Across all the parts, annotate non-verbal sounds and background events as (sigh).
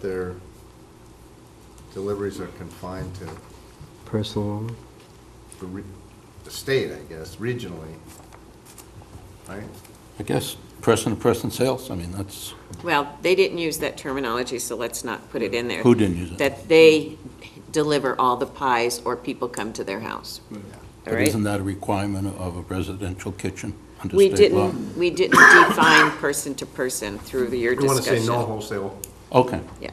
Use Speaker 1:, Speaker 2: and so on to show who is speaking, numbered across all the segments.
Speaker 1: their deliveries are confined to
Speaker 2: personal,
Speaker 1: the re- the state, I guess, regionally, right?
Speaker 3: I guess, person-to-person sales, I mean, that's,
Speaker 4: Well, they didn't use that terminology, so let's not put it in there.
Speaker 3: who didn't use it?
Speaker 4: That they deliver all the pies or people come to their house, all
Speaker 3: But
Speaker 4: right?
Speaker 3: isn't that a requirement of a residential kitchen under
Speaker 4: We
Speaker 3: state law?
Speaker 4: didn't, we didn't define person to person through your
Speaker 1: You want to say
Speaker 4: discussion.
Speaker 1: no wholesale,
Speaker 3: Okay,
Speaker 4: Yeah.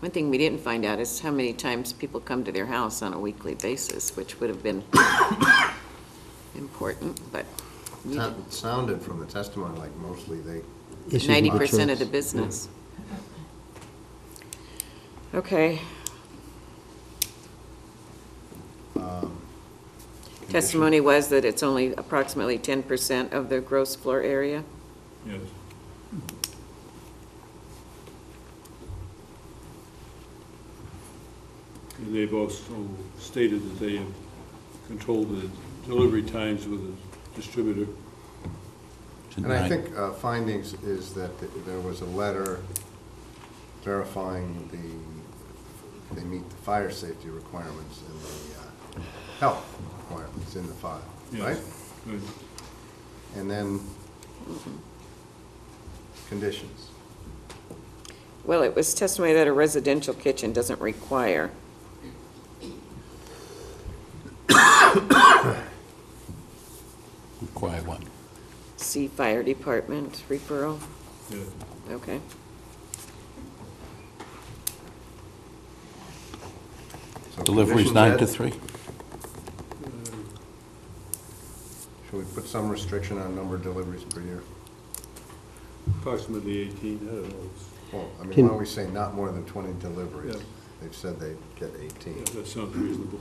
Speaker 4: One thing we didn't find out is how many times people come to their house on a weekly basis, which would have been (coughs) important, but you
Speaker 1: It sounded from the testimony like mostly they,
Speaker 2: issues with
Speaker 4: ninety
Speaker 2: the
Speaker 4: percent of the
Speaker 2: church.
Speaker 4: business. Okay. Testimony was that it's only approximately ten percent of the gross floor area.
Speaker 5: Yes. And they've also stated that they have controlled the delivery times with the distributor.
Speaker 1: and I
Speaker 3: Right.
Speaker 1: think uh, findings is that th- there was a letter verifying the, they meet the fire safety requirements and the uh, health requirements in the file, right?
Speaker 5: Yes. Good.
Speaker 1: And then conditions.
Speaker 4: Well, it was testimony that a residential kitchen doesn't require.
Speaker 3: require what?
Speaker 4: See fire department referral,
Speaker 5: Yeah.
Speaker 4: okay.
Speaker 1: So
Speaker 3: Deliveries
Speaker 1: conditions
Speaker 3: nine to
Speaker 1: that-
Speaker 3: three?
Speaker 1: Should we put some restriction on number of deliveries per year?
Speaker 5: Approximately eighteen, I don't know, It's-
Speaker 1: Well, I mean,
Speaker 2: Can-
Speaker 1: why don't we say not more than twenty deliveries?
Speaker 5: Yeah.
Speaker 1: They've said they get eighteen.
Speaker 5: yeah, that sounds reasonable.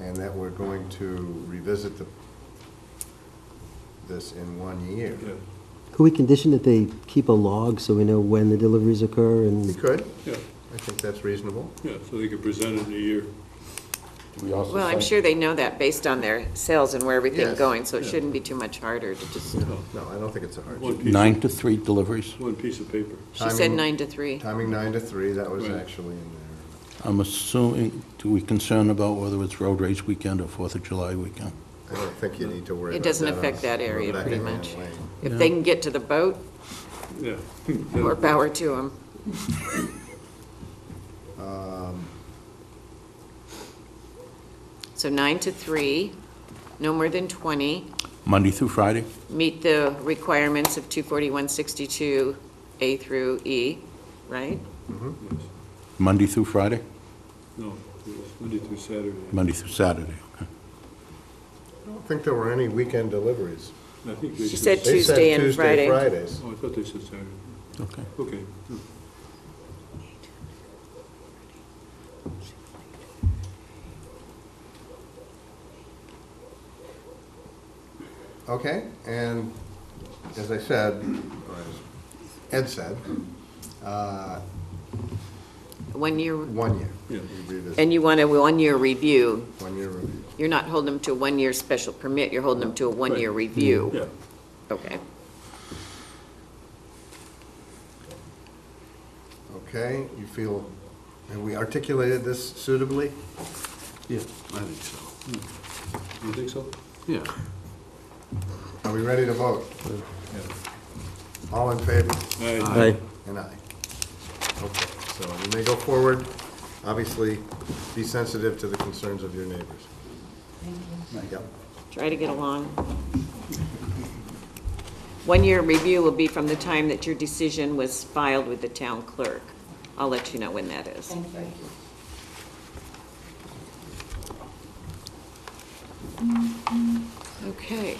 Speaker 1: And that we're going to revisit the, this in one year.
Speaker 5: Yeah,
Speaker 2: Could we condition that they keep a log so we know when the deliveries occur
Speaker 1: We
Speaker 2: and
Speaker 1: could,
Speaker 5: yeah,
Speaker 1: I think that's reasonable.
Speaker 5: yeah, so they could present it in a year.
Speaker 4: Well, I'm sure they know that based on their sales and where everything's
Speaker 1: Yes.
Speaker 4: going, so it
Speaker 5: Yeah.
Speaker 4: shouldn't be too much harder to just,
Speaker 1: No, I don't think it's a hardship.
Speaker 5: One piece,
Speaker 3: Nine to three deliveries?
Speaker 5: one piece of paper.
Speaker 4: she said
Speaker 1: Timing-
Speaker 4: nine to three.
Speaker 1: Timing nine to three, that was
Speaker 5: Right.
Speaker 1: actually in there.
Speaker 3: I'm assuming, do we concern about whether it's road race weekend or Fourth of July weekend?
Speaker 1: I don't think you need to worry
Speaker 4: It
Speaker 1: about that.
Speaker 4: doesn't
Speaker 1: on
Speaker 4: affect that area
Speaker 1: Rebecca
Speaker 4: pretty
Speaker 1: Ann
Speaker 4: much.
Speaker 1: Lane.
Speaker 4: If they can get to the boat,
Speaker 5: Yeah.
Speaker 4: more power to them. So nine to three, no more than 20,
Speaker 3: Monday through Friday?
Speaker 4: meet the requirements of 24162 A through E, right?
Speaker 5: Yes.
Speaker 3: Monday through Friday?
Speaker 5: No, it was Monday through Saturday.
Speaker 3: Monday through Saturday, okay.
Speaker 1: I don't think there were any weekend deliveries.
Speaker 5: I think they
Speaker 4: She said
Speaker 1: They said
Speaker 4: Tuesday and
Speaker 1: Tuesday,
Speaker 4: Friday.
Speaker 1: Fridays.
Speaker 5: Oh, I thought they said Saturday.
Speaker 3: Okay.
Speaker 5: Okay.
Speaker 1: Okay, and as I said, or as Ed said, uh,
Speaker 4: One year,
Speaker 1: one year.
Speaker 5: Yeah.
Speaker 1: We revisit
Speaker 4: and you want a one-year review.
Speaker 1: One year review.
Speaker 4: You're not holding them to a one-year special permit, you're holding them to a one-year
Speaker 5: Right.
Speaker 4: review.
Speaker 5: Yeah.
Speaker 4: Okay.
Speaker 1: Okay, you feel, have we articulated this suitably?
Speaker 6: Yeah, I think so.
Speaker 5: You think so?
Speaker 6: Yeah.
Speaker 1: Are we ready to vote? All in favor?
Speaker 5: Yeah.
Speaker 2: Aye.
Speaker 1: And aye. Okay, so you may go forward. Obviously, be sensitive to the concerns of your neighbors. Thank you.
Speaker 4: Try to get along. One-year review will be from the time that your decision was filed with the town clerk. I'll let you know when that is. Okay.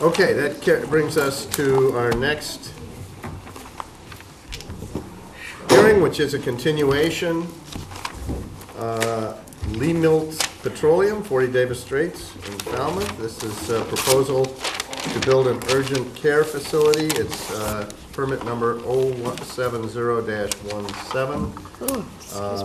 Speaker 1: Okay, that ca- brings us to our next hearing, which is a continuation. uh, Lee Milt Petroleum, 40 Davis Straits in Falmouth. This is a proposal to build an urgent care facility. It's oh uh, permit number 070-17.
Speaker 4: Oh, excuse